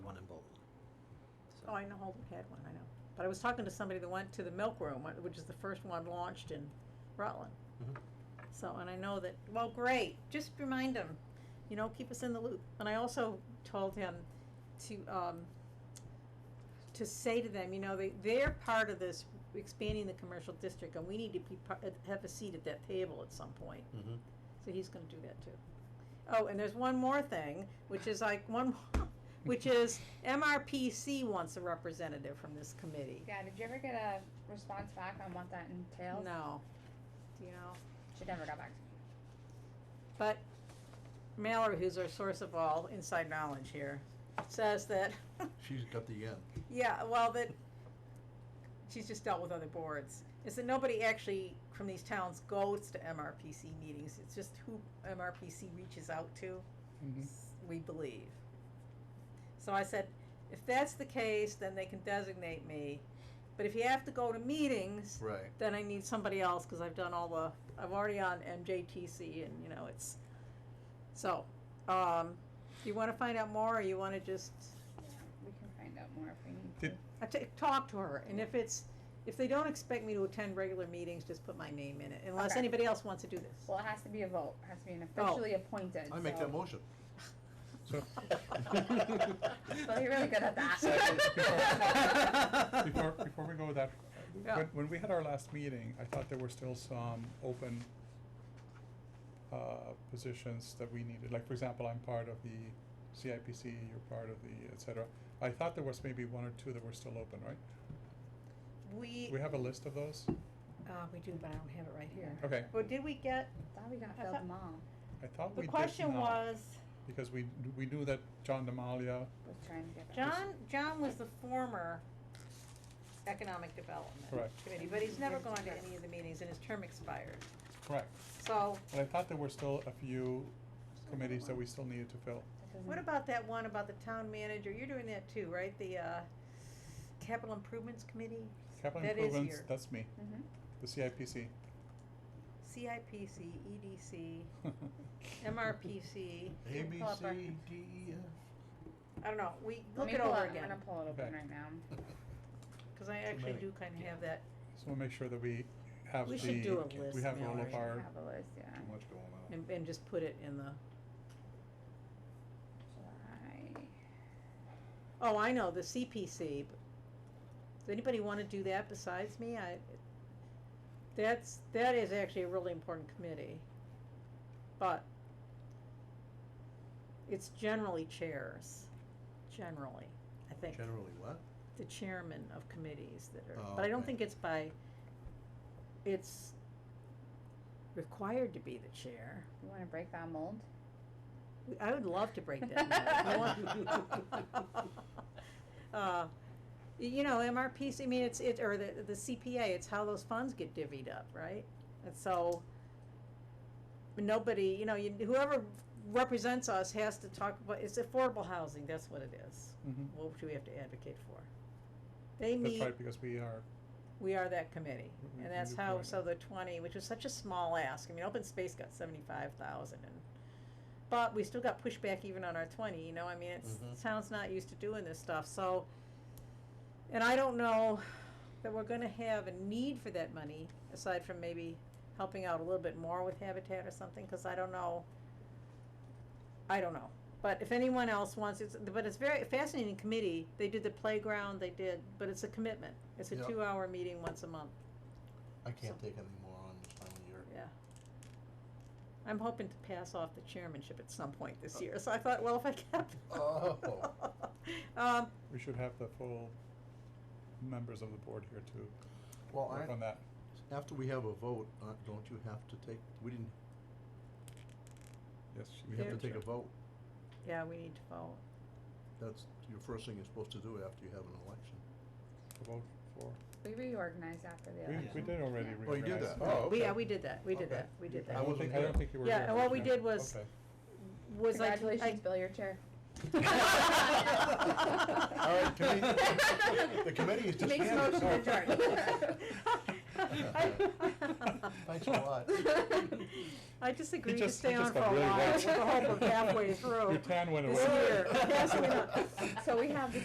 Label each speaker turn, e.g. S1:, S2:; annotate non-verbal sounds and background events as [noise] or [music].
S1: Oh, I know Holden had one, I know. But I was talking to somebody that went to the Milk Room, uh, which is the first one launched in Rutland.
S2: Mhm.
S1: So, and I know that, well, great, just remind them, you know, keep us in the loop. And I also told him to, um, to say to them, you know, they, they're part of this expanding the commercial district and we need to be, par- uh, have a seat at that table at some point.
S2: Mm-hmm.
S1: So he's gonna do that too. Oh, and there's one more thing, which is like one, more- [laughs] which is MRPC wants a representative from this committee.
S3: Yeah, did you ever get a response back on what that entails?
S1: No, do you know?
S3: She never got back to me.
S1: But Mallory, who's our source of all inside knowledge here, says that, [laughs]
S2: She's got the end.
S1: yeah, well, that she's just dealt with other boards, is that nobody actually from these towns goes to MRPC meetings. It's just who MRPC reaches out to.
S3: Mm-hmm.
S1: s- we believe. So I said, if that's the case, then they can designate me. But if you have to go to meetings,
S2: Right.
S1: then I need somebody else because I've done all the, I'm already on MJTC and, you know, it's, so, um, you want to find out more or you want to just,
S3: We can find out more if we need to.
S4: Did-
S1: I ta- talk to her. And if it's, if they don't expect me to attend regular meetings, just put my name in it, unless
S3: Okay.
S1: anybody else wants to do this.
S3: Well, it has to be a vote, it has to be an
S1: Oh.
S3: officially appointed,
S2: I make
S3: so-
S2: that motion.
S4: So,
S3: [laughs] Well, you're really good at
S1: Second.
S3: [laughs] that.
S4: before, before we go with that,
S1: Yeah.
S4: when, when we had our last meeting, I thought there were still some open, uh, positions that we needed, like, for example, I'm part of the CIPC, you're part of the, et cetera. I thought there was maybe one or two that were still open, right?
S1: We,
S4: We have a list of those?
S1: uh, we do, but I don't have it right here.
S4: Okay,
S1: Well, did we get,
S3: Thought we got
S1: I
S3: filled
S1: thought-
S3: them all,
S4: I thought we
S1: the
S4: did
S1: question
S4: now,
S1: was,
S4: Because we, we knew that John Demalia,
S3: was trying to get back.
S1: John, John was the former Economic Development
S4: Correct.
S1: Committee, but he's never gone to any of the meetings and his term expired.
S4: correct,
S1: So
S4: but I thought there were still a few committees that we still needed to fill.
S3: That doesn't-
S1: what about that one about the town manager? You're doing that too, right? The, uh, Capital Improvements Committee,
S4: Capital
S1: That is
S4: improvements,
S1: your-
S4: that's me,
S3: Mhm.
S4: the [laughs]
S1: [laughs]
S4: CIPC.
S1: CIPC, EDC, MRPC,
S2: A, B,
S3: Pull up our-
S2: C, D, E, F.
S1: I don't know, we,
S3: Let
S1: look
S3: me
S1: it
S3: pull
S1: over
S3: it- I'm
S1: again,
S3: gonna pull it open
S4: Okay.
S3: right now.
S1: cause I actually
S2: many.
S1: do kinda have that,
S4: So we'll make sure that we have the.
S1: We should do a list,
S4: We have all
S1: Mallory.
S4: of our,
S3: Have a list, yeah.
S2: Too much going on.
S1: and, and just put it in the,
S3: July.
S1: oh, I know, the CPC. but- Does anybody wanna do that besides me? I, that's, that is actually a really important committee. But it's generally chairs, generally, I think,
S2: Generally what?
S1: the chairman of committees that are,
S2: Oh,
S1: but I don't
S2: okay.
S1: think it's by, it's required to be the chair.
S3: You wanna break that mold?
S1: I would love to break that. mold. You want- [laughs] Uh, y- You know, MRPC, I mean, it's, it, or the, the CPA, it's how those funds get divvied up, right? And so, nobody, you know, you- whoever represents us has to talk about, it's affordable housing, that's what it is.
S4: Mhm.
S1: What do we have to advocate for? They
S4: that's
S1: meet,
S4: right, because we are,
S1: we are that committee,
S4: We- we
S1: and that's
S4: do
S1: how,
S4: provide
S1: so the twenty, which was such a small ask, I mean, open space got seventy-five thousand and, but we still got pushback even on our twenty, you know, I mean, it's,
S2: Mhm.
S1: town's not used to doing this stuff, so, and I don't know that we're gonna have a need for that money, aside from maybe helping out a little bit more with Habitat or something, cause I don't know, I don't know, but if anyone else wants, it's, but it's very fascinating committee, they did the playground, they did, but it's a commitment, it's a
S2: Yep.
S1: two-hour meeting once a month.
S2: I can't
S1: So-
S2: take any more on this time of year.
S1: Yeah. I'm hoping to pass off the chairmanship at some point this year, so I thought, well, if I
S2: [laughs]
S1: kept.
S2: Oh.
S1: [laughs] Um,
S4: we should have the full members of the board here to
S2: Well,
S4: work on
S2: I,
S4: that.
S2: after we have a vote, uh, don't you have to take, we didn't,
S4: Yes,
S2: we
S4: have
S2: have to take a
S4: check.
S2: vote.
S1: yeah, we need to vote.
S2: That's your first thing you're supposed to do after you have an election.
S4: A vote for,
S3: We reorganized after the
S4: we,
S3: election.
S4: we did already
S3: Yeah.
S4: reorganize.
S2: Oh, you did that? Oh,
S4: right?
S1: We, yeah,
S2: okay.
S1: we did that, we did
S2: Okay.
S1: that, we did
S4: I
S1: that.
S4: don't
S2: wasn't
S4: think- I don't
S2: here.
S4: think you were
S1: Yeah,
S4: here.
S1: and what we
S4: No.
S1: did was-
S4: Okay.
S1: Was I, I,
S3: Congratulations, Bill, your chair. [laughs]
S2: All right,
S3: [laughs]
S2: committee, the committee is
S3: Makes
S2: disbanded.
S3: motion to
S2: Sorry. [laughs]
S3: [laughs]
S2: Thanks a lot.
S1: I disagree
S4: He
S1: to
S4: just-
S1: stay
S4: he
S1: on
S4: just
S1: for a
S4: got
S1: [laughs]
S4: really
S1: while,
S4: wet. [laughs]
S1: with the hope of halfway through.
S4: Your tan went
S1: this
S4: away.
S1: year. Yes, we know.
S3: So we have the